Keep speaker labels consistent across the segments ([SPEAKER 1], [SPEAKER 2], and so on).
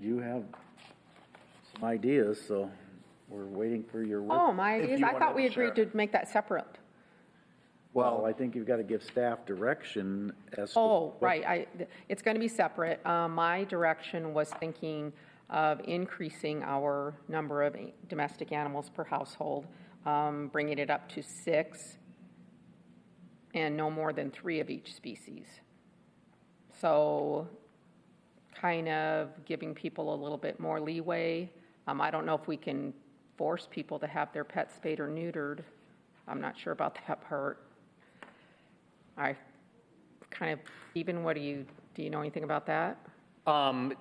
[SPEAKER 1] you have some ideas, so we're waiting for your work.
[SPEAKER 2] Oh, my
[SPEAKER 3] If
[SPEAKER 2] ideas,
[SPEAKER 3] you
[SPEAKER 2] I thought
[SPEAKER 3] wanted
[SPEAKER 2] we
[SPEAKER 3] to share.
[SPEAKER 2] agreed to make that separate.
[SPEAKER 1] Well, I think you've got to give staff direction as to.
[SPEAKER 2] Oh, right, I, th- it's going to be separate. Uh, My direction was thinking of increasing our number of domestic animals per household, um, bringing it up to six, and no more than three of each species. So kind of giving people a little bit more leeway. Um, I don't know if we can force people to have their pets spayed or neutered. I'm not sure about that part. I kind of, even what do you, do you know anything about that?
[SPEAKER 4] Um,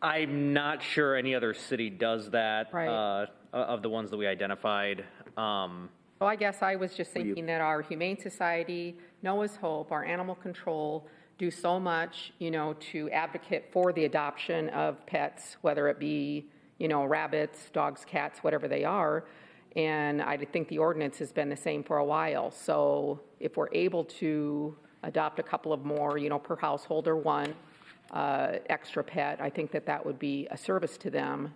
[SPEAKER 4] I'm not sure any other city does that.
[SPEAKER 2] Right.
[SPEAKER 4] Uh, of the ones that we identified. Um,
[SPEAKER 2] Well, I guess I was just thinking that our Humane Society, Noah's Hope, our animal control do so much, you know, to advocate for the adoption of pets, whether it be, you know, rabbits, dogs, cats, whatever they are. And I think the ordinance has been the same for a while. So if we're able to adopt a couple of more, you know, per household or one uh, extra pet, I think that that would be a service to them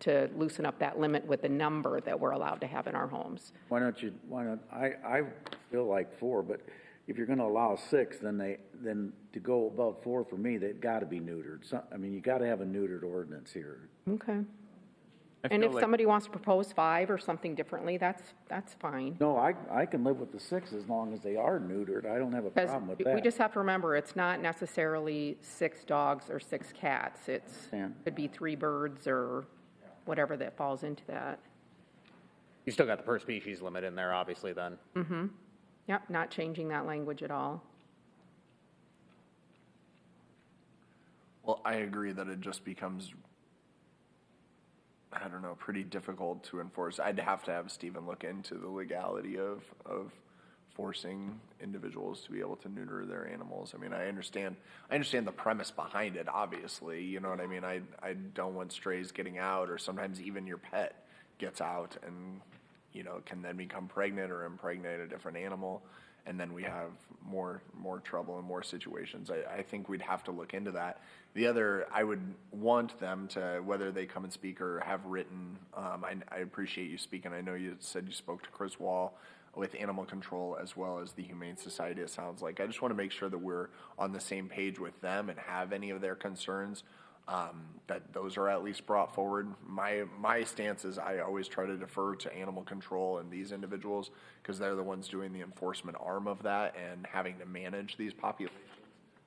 [SPEAKER 2] to loosen up that limit with the number that we're allowed to have in our homes.
[SPEAKER 1] Why don't you, why not, I, I feel like four, but if you're gonna allow six, then they, then to go above four for me, they've gotta be neutered. So, I mean, you gotta have a neutered ordinance here.
[SPEAKER 2] Okay. And if somebody wants to propose five or something differently, that's, that's fine.
[SPEAKER 1] No, I, I can live with the six as long as they are neutered. I don't have a
[SPEAKER 2] Because
[SPEAKER 1] problem with that.
[SPEAKER 2] we just have to remember, it's not necessarily six dogs or six cats. It's,
[SPEAKER 1] Understand.
[SPEAKER 2] could be three birds or whatever that falls into that.
[SPEAKER 4] you still got the per species limit in there, obviously, then.
[SPEAKER 2] Yep, not changing that language at all.
[SPEAKER 3] Well, I agree that it just becomes, I don't know, pretty difficult to enforce. I'd have to have Stephen look into the legality of, of forcing individuals to be able to neuter their animals. I mean, I understand, I understand the premise behind it, obviously, you know what I mean? I, I don't want strays getting out, or sometimes even your pet gets out and, you know, can then become pregnant or impregnate a different animal. And then we have more, more trouble and more situations. I, I think we'd have to look into that. The other, I would want them to, whether they come and speak or have written, um, I, I appreciate you speaking. I know you said you spoke to Chris Wall with animal control as well as the Humane Society, it sounds like. I just want to make sure that we're on the same page with them and have any of their concerns um, that those are at least brought forward. My my stance is I always try to defer to animal control and these individuals because they're the ones doing the enforcement arm of that and having to manage these populations.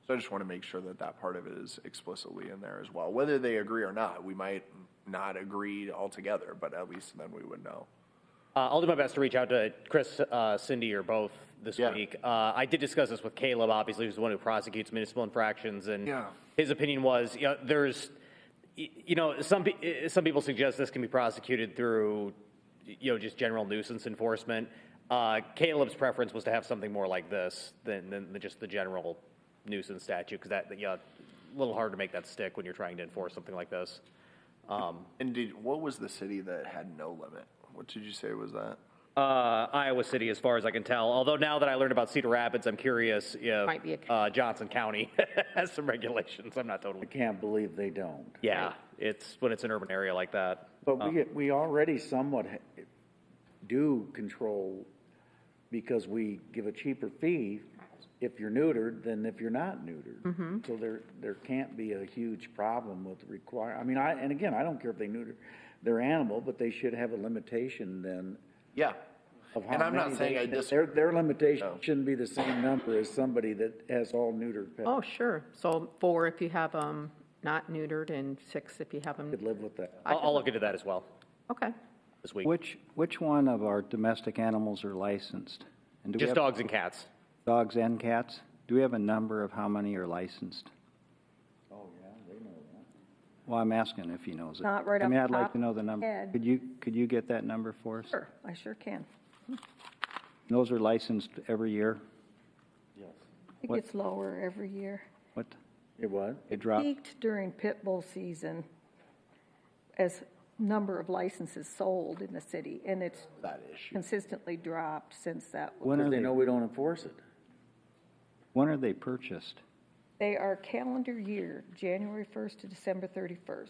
[SPEAKER 3] So I just want to make sure that that part of it is explicitly in there as well. Whether they agree or not, we might not agree altogether, but at least then we would know.
[SPEAKER 4] Uh, I'll do my best to reach out to Chris, uh, Cindy, or both this
[SPEAKER 3] Yeah.
[SPEAKER 4] week. Uh, I did discuss this with Caleb, obviously, who's the one who prosecutes municipal infractions, and
[SPEAKER 3] Yeah.
[SPEAKER 4] his opinion was, you know, there's, y- you know, some pe- eh, some people suggest this can be prosecuted through, you know, just general nuisance enforcement. Uh, Caleb's preference was to have something more like this than than the- just the general nuisance statute, because that, yeah, a little hard to make that stick when you're trying to enforce something like this. Um,
[SPEAKER 3] And did what was the city that had no limit? What did you say was that?
[SPEAKER 4] uh, Iowa City, as far as I can tell. Although now that I learned about Cedar Rapids, I'm curious if
[SPEAKER 2] Might be a-
[SPEAKER 4] uh, Johnson County has some regulations. I'm not totally.
[SPEAKER 1] I can't believe they don't.
[SPEAKER 4] Yeah, it's when it's an urban area like that.
[SPEAKER 3] Uh,
[SPEAKER 1] But we, we already somewhat ha- do control, because we give a cheaper fee if you're neutered than if you're not neutered. So there, there can't be a huge problem with require, I mean, I, and again, I don't care if they neuter their animal, but they should have a limitation then
[SPEAKER 3] Yeah.
[SPEAKER 1] of how
[SPEAKER 3] And
[SPEAKER 1] many.
[SPEAKER 3] I'm not saying
[SPEAKER 1] they-
[SPEAKER 3] I disagree.
[SPEAKER 1] Their, their limitation shouldn't be the same number as somebody that has all neutered pets.
[SPEAKER 2] Oh, sure. So four if you have them not neutered and six if you have them.
[SPEAKER 1] Could live with that.
[SPEAKER 4] I'll, I'll look into that as well
[SPEAKER 2] Okay.
[SPEAKER 4] this week.
[SPEAKER 5] Which, which one of our domestic animals are licensed? And do we
[SPEAKER 4] Just
[SPEAKER 5] have
[SPEAKER 4] dogs and cats.
[SPEAKER 5] Dogs and cats? Do we have a number of how many are licensed?
[SPEAKER 1] Oh, yeah, they know that.
[SPEAKER 5] Well, I'm asking if he knows it.
[SPEAKER 6] Not right off
[SPEAKER 5] I mean,
[SPEAKER 6] the
[SPEAKER 5] I'd like
[SPEAKER 6] top
[SPEAKER 5] to know the
[SPEAKER 6] of my
[SPEAKER 5] number.
[SPEAKER 6] head.
[SPEAKER 5] Could you, could you get that number for us?
[SPEAKER 6] Sure, I sure can.
[SPEAKER 5] Those are licensed every year?
[SPEAKER 6] It
[SPEAKER 5] What-
[SPEAKER 6] gets lower every year.
[SPEAKER 5] What?
[SPEAKER 1] It what?
[SPEAKER 5] They drop?
[SPEAKER 6] Peaked during pit bull season as number of licenses sold in the city, and it's
[SPEAKER 3] That issue.
[SPEAKER 6] consistently dropped since that. was-
[SPEAKER 5] When
[SPEAKER 1] Because
[SPEAKER 5] are
[SPEAKER 1] they
[SPEAKER 5] they,
[SPEAKER 1] know we don't enforce it.
[SPEAKER 5] when are they purchased?
[SPEAKER 6] They are calendar year, January 1st to December 31st.